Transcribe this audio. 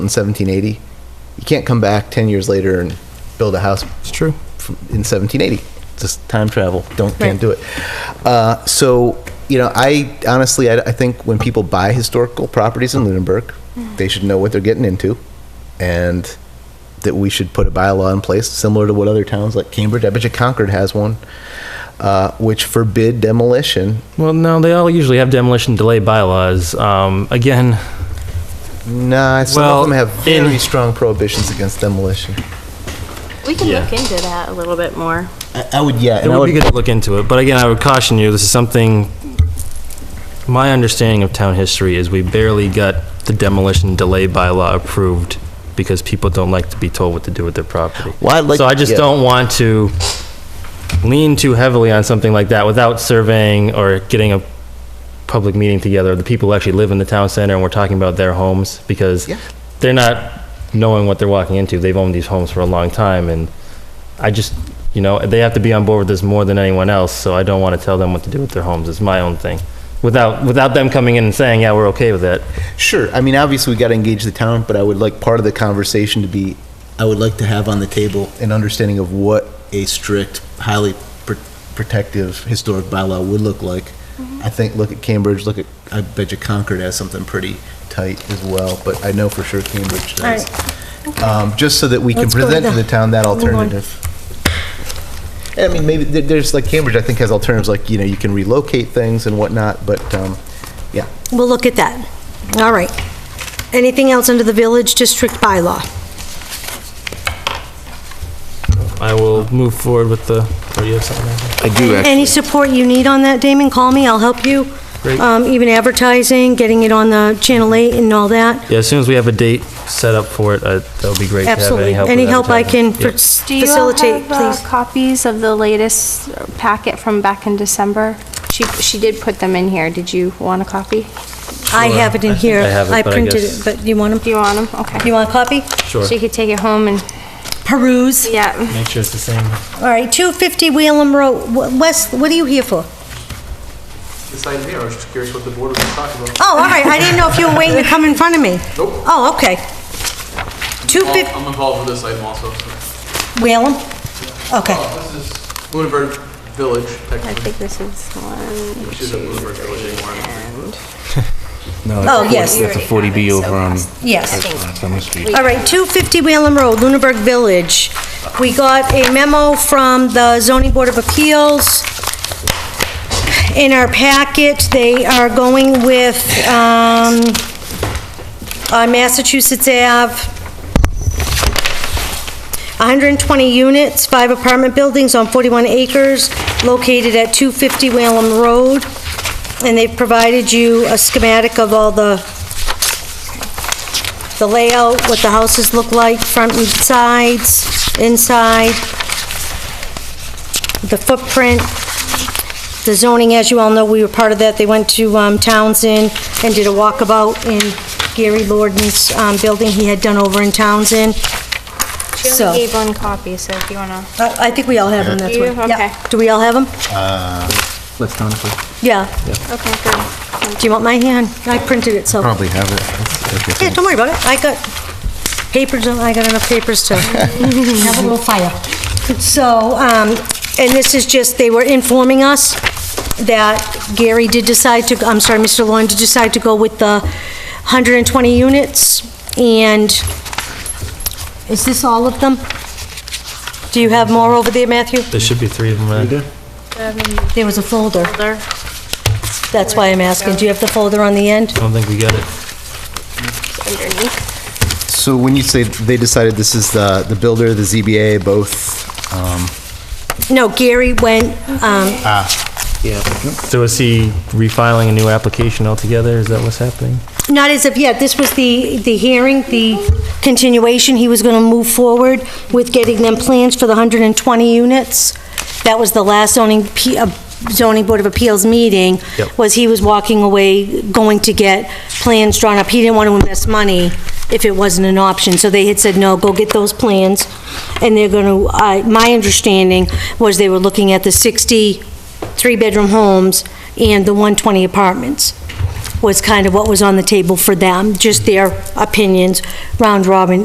in 1780. You can't come back 10 years later and build a house It's true. from, in 1780. Just time travel. Don't Right. can't do it. Uh, so you know, I honestly, I, I think when people buy historical properties in Lunenburg, they should know what they're getting into, and that we should put a bylaw in place similar to what other towns like Cambridge, I bet you Concord has one, uh, which forbid demolition Well, no, they all usually have demolition delay bylaws. Um, again, Nah, some Well, of them have in- very strong prohibitions against demolition. We can Yeah. look into that a little bit more. I, I would, yeah, it would be good to look into it, but again, I would caution you, this is something, my understanding of town history is we barely got the demolition delay bylaw approved because people don't like to be told what to do with their property. Well, I'd like- So I just yeah. don't want to lean too heavily on something like that without surveying or getting a public meeting together, the people who actually live in the town center, and we're talking about their homes, because Yeah. they're not knowing what they're walking into. They've owned these homes for a long time, and I just, you know, they have to be on board with this more than anyone else, so I don't want to tell them what to do with their homes. It's my own thing. Without, without them coming in and saying, yeah, we're okay with that. Sure, I mean, obviously, we gotta engage the town, but I would like part of the conversation to be, I would like to have on the table an understanding of what a strict, highly pr- protective historic bylaw would look like. Mm-hmm. I think, look at Cambridge, look at, I bet you Concord has something pretty tight as well, but I know for sure Cambridge All right. does. Um, just so that we can Let's go with present to the that. town that Move on. alternative. I mean, maybe, there- there's, like, Cambridge, I think, has alternatives, like, you know, you can relocate things and whatnot, but, um, yeah. We'll look at that. All right. Anything else under the village district bylaw? I will move forward with the, or you have something? else? I do Any actually. support you need on that, Damon, call me, I'll help you. Great. Um, Even advertising, getting it on the Channel 8 and all that. Yeah, as soon as we have a date set up for it, uh, that would be great to have any Absolutely. help. Any with help I advertising. can Yeah. fac- Do you all facilitate, have uh, please. copies of the latest packet from back in December? She, she did put them in here. Did you want a copy? I Sure. have it I in think here. I have it, but I printed guess- it, but you want Do them? you want them? Okay. You want a copy? Sure, She could take it home and, Peruse. yeah. make sure it's the same. All right, 250 Wheelam Road. Wh- Wes, what are you here for? this item here, I was just curious what the board was talking about. Oh, all right, I didn't know if you were waiting to come in front of me. Nope. Oh, okay. 250 I'm involved with this item also. Wheelam? Okay. This is Lunenburg Village, I technically, think this is one, which isn't Lunenburg Village anymore. and Oh, yes, That's a 40B over on yes. Summer Street. All right, 250 Whalen Road, Lunenburg Village. We got a memo from the zoning board of appeals. In our packet, they are going with, um, on Massachusetts Ave, 120 units, five apartment buildings on 41 acres, located at 250 Whalen Road. And they've provided you a schematic of all the the layout, what the houses look like, front and sides, inside, the footprint, the zoning, as you all know, we were part of that. They went to um, Townsend and did a walkabout in Gary Lorden's um, building he had done over in Townsend. she So- only gave one copy, so if you want to. I I think we all have them, that's Do you? what. yeah. Okay. Do we all have them? Let's not. Yeah. Okay, good. Do you want my hand? I printed it, so. Probably have it. Yeah, don't worry about it. I got papers, and I got enough papers to have a little fire. So, um, and this is just, they were informing us that Gary did decide to, I'm sorry, Mr. Lauren did decide to go with the 120 units, and is this all of them? Do you have more over there, Matthew? There should be three of them. uh, There was a folder. That's why I'm asking. Do you have the folder on the end? I don't think we got it. Underneath. So when you say they decided this is the, the builder, the ZBA, both, um, No, Gary went, um, So is he refiling a new application altogether? Is that what's happening? Not as of yet. This was the, the hearing, the continuation. He was going to move forward with getting them plans for the 120 units. That was the last zoning, P- uh, zoning board of appeals meeting, Yep. was he was walking away, going to get plans drawn up. He didn't want to invest money if it wasn't an option. So they had said, no, go get those plans. And they're going to, my understanding was they were looking at the 60 three-bedroom homes and the 120 apartments. was kind of what was on the table for them, just their opinions, round robin